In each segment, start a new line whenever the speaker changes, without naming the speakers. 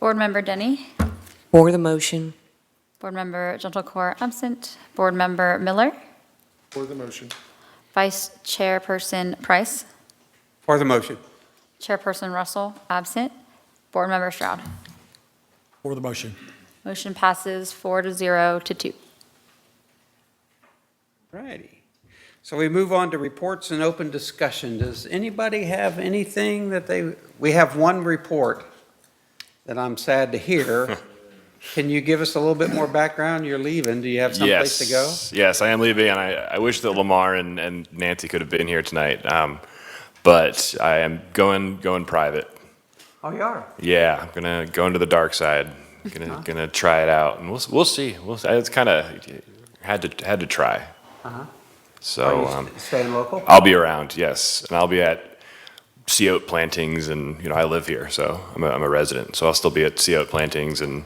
Board Member Denny.
For the motion.
Board Member Gentlecore absent. Board Member Miller.
For the motion.
Vice Chairperson Price.
For the motion.
Chairperson Russell absent. Board Member Stroud.
For the motion.
Motion passes four to zero to two.
Righty. So we move on to reports and open discussion. Does anybody have anything that they, we have one report that I'm sad to hear. Can you give us a little bit more background? You're leaving. Do you have someplace to go?
yes. Yes, I am leaving, and I, I wish that Lamar and, and Nancy could have been here tonight. Um, but I am going going private.
Oh, you are?
Yeah, I'm gonna go into the dark side. Gonna gonna try it out, and we'll s- we'll see. We'll see. It's kind of had to had to try.
Uh-huh. Are
So
you
um,
st- staying local?
I'll be around. Yes, and I'll be at sea oat plantings, and you know I live here, so I'm a, I'm a resident. So I'll still be at sea oat plantings and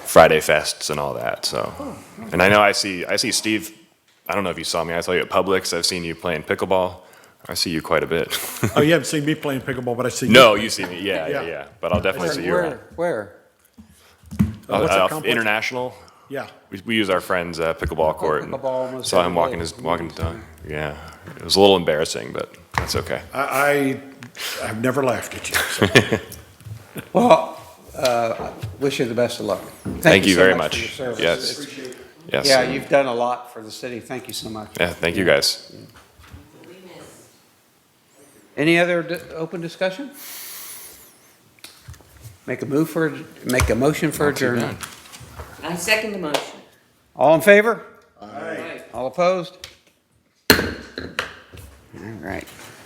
Friday fests and all that. So, and I know I see I see Steve. I don't know if you saw me. I saw you at Publix. I've seen you playing pickleball. I see you quite a bit.
Oh, you haven't seen me playing pickleball, but I see. you.
no, you see me. Yeah, yeah,
Yeah.
yeah. But I'll definitely see you around.
Where, where?
Uh, what's that
Uh,
complex?
international.
Yeah.
We, we use our friend's uh, pickleball court. and
Pickleball almost
saw
every
him
day.
walking his walking his dog. Yeah, it was a little embarrassing, but that's okay.
I, I, I've never laughed at you. so.
Well, uh, wish you the best of luck.
Thank you
so
very
for
much.
your service.
Yes.
It's-
Yes.
Yeah,
and-
you've done a lot for the city. Thank you so much.
Yeah, thank you guys.
Any other di- open discussion? Make a move for, make a motion for adjournment.
I second the motion.
All in favor?
Aye.
All opposed? All right.